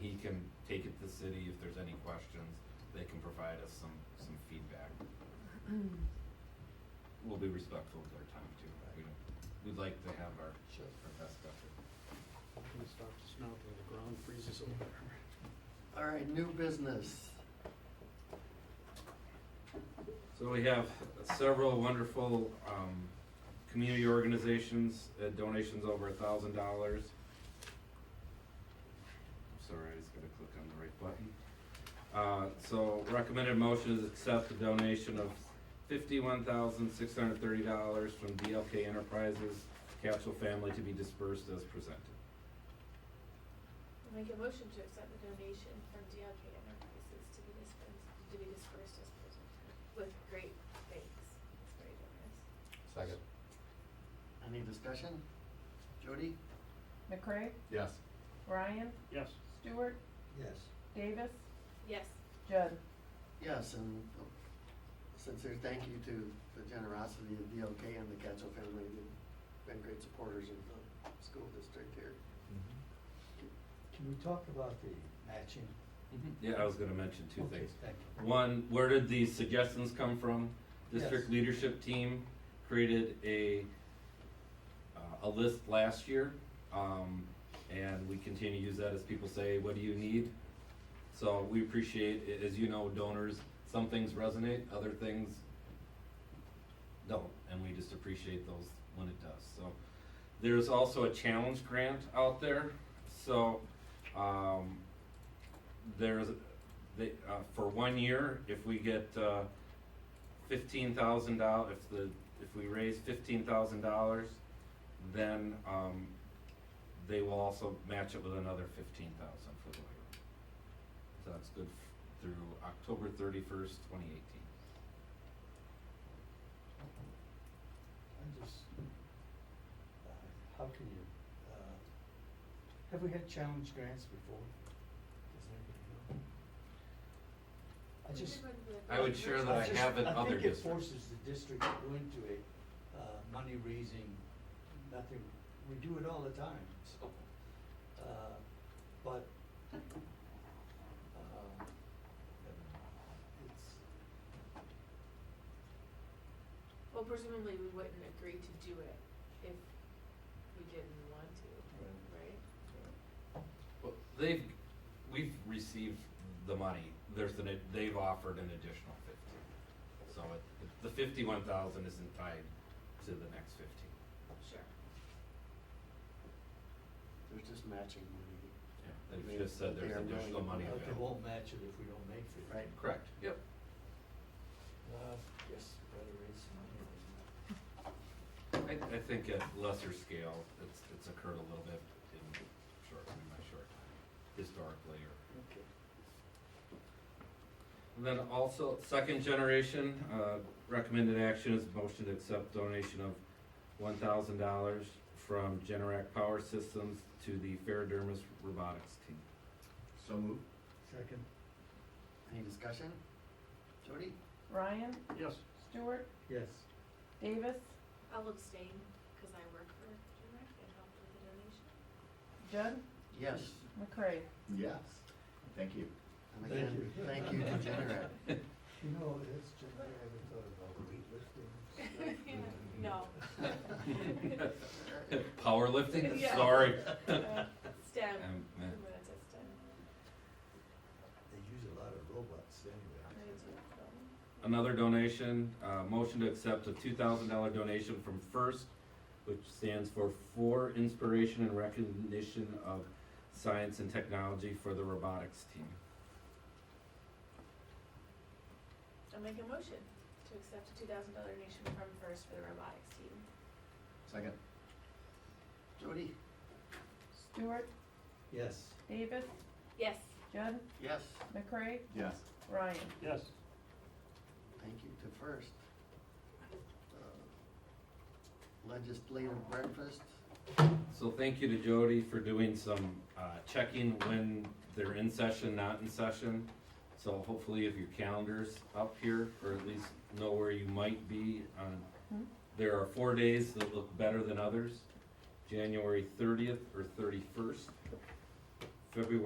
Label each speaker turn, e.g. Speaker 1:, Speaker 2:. Speaker 1: he can take it to the city if there's any questions, they can provide us some, some feedback. We'll be respectful of their time too, we don't, we'd like to have our,
Speaker 2: Sure.
Speaker 1: our best effort.
Speaker 3: Gonna stop the snow till the ground freezes over.
Speaker 2: All right, new business.
Speaker 1: So we have several wonderful um, community organizations, uh, donations over a thousand dollars. Sorry, I just gotta click on the right button. Uh, So recommended motion is accept the donation of fifty-one thousand six hundred thirty dollars from DLK Enterprises Capsule Family to be dispersed as presented.
Speaker 4: I'll Make a motion to accept the donation from DLK Enterprises to be dispensed, to be dispersed as presented, with great thanks. It's very generous.
Speaker 5: Second.
Speaker 2: Any discussion? Jody?
Speaker 6: McCray,
Speaker 5: Yes.
Speaker 6: Ryan,
Speaker 3: Yes,
Speaker 6: Stewart,
Speaker 5: Yes.
Speaker 6: Davis,
Speaker 4: Yes,
Speaker 6: Judd.
Speaker 2: Yes, and sincere thank you to the generosity of DLK and the Gatto family. They've been great supporters of the school district here.
Speaker 5: Can we talk about the matching?
Speaker 1: Yeah, I was gonna mention two
Speaker 5: Mm-hmm. Okay,
Speaker 1: things.
Speaker 5: Thank you.
Speaker 1: One, where did these suggestions come from? District
Speaker 5: Yes.
Speaker 1: leadership team created a, uh, a list last year. Um, and we continue to use that as people say, what do you need? So we appreciate, a- as you know, donors, some things resonate, other things don't, and we just appreciate those when it does, so. There's also a challenge grant out there, so, um, there's, they, uh, for one year, if we get, uh, fifteen thousand dollars, if the, if we raise fifteen thousand dollars, then, um, they will also match it with another fifteen thousand for the waiver. So that's good f- through October thirty-first, twenty eighteen.
Speaker 5: I just, uh, how can you, uh, have we had challenge grants before? Does anybody know? I
Speaker 4: We
Speaker 5: just.
Speaker 4: did one with
Speaker 1: I would share that I
Speaker 5: just-
Speaker 1: have in other districts.
Speaker 5: I think it forces the district to go into a, uh, money raising, nothing, we do it all the time, so, uh, but, um, it's,
Speaker 4: Well, presumably we wouldn't agree to do it if we didn't want to, right?
Speaker 1: Well, they've, we've received the money, there's an, ad- they've offered an additional fifteen. So it, the fifty-one thousand isn't tied to the next fifteen.
Speaker 4: Sure.
Speaker 2: There's just matching money.
Speaker 1: They've just said
Speaker 2: They
Speaker 1: there's
Speaker 2: are willing
Speaker 1: additional
Speaker 2: to
Speaker 1: money
Speaker 2: put
Speaker 5: But they
Speaker 1: available.
Speaker 5: won't match it if we don't make it.
Speaker 2: Right.
Speaker 1: Correct, yep.
Speaker 5: Uh, yes, better raise some money. right
Speaker 1: I, I think at lesser scale, it's, it's occurred a little bit in short, in my short time, historically or.
Speaker 5: now. Okay.
Speaker 1: And then also, second generation, uh, recommended action is motion to accept donation of one thousand dollars from Generac Power Systems to the Ferrodermis Robotics Team.
Speaker 5: So move. Second.
Speaker 2: Any discussion? Jody?
Speaker 6: Ryan,
Speaker 3: yes.
Speaker 6: Stewart,
Speaker 5: Yes.
Speaker 6: Davis,
Speaker 4: I'll abstain, cause I work for Direct and helped with the donation.
Speaker 6: Judd,
Speaker 2: Yes.
Speaker 6: McCray.
Speaker 2: Yes.
Speaker 7: Thank you.
Speaker 2: And
Speaker 5: Thank
Speaker 2: again,
Speaker 5: you.
Speaker 2: thank you to Generac.
Speaker 5: You know, it's just, I haven't thought about weightlifting.
Speaker 4: No,
Speaker 1: Powerlifting,
Speaker 4: Yeah.
Speaker 1: sorry.
Speaker 6: Uh,
Speaker 4: STEM,
Speaker 1: Um,
Speaker 4: I'm
Speaker 1: eh.
Speaker 4: gonna say STEM.
Speaker 5: They use a lot of robots
Speaker 1: uh,
Speaker 5: anyway.
Speaker 4: I do, so.
Speaker 1: Another donation, uh, motion to accept a two thousand dollar donation from FIRST, which stands for For Inspiration and Recognition of Science and Technology for the Robotics Team.
Speaker 4: I'll make a motion to accept a two thousand dollar donation from First for the robotics team.
Speaker 7: Second.
Speaker 2: Jody?
Speaker 6: Stewart,
Speaker 5: Yes.
Speaker 6: Davis,
Speaker 4: Yes.
Speaker 6: Judd,
Speaker 2: Yes.
Speaker 6: McCray,
Speaker 7: Yes.
Speaker 6: Ryan.
Speaker 3: Yes,
Speaker 2: Thank you to First. Uh, Legislative breakfast,
Speaker 1: So thank you to Jody for doing some uh, checking when they're in session, not in session. So hopefully if your calendar's up here, or at least know where you might be
Speaker 6: Hmm.
Speaker 1: on, there are four days that look better than others. January thirtieth or thirty-first, February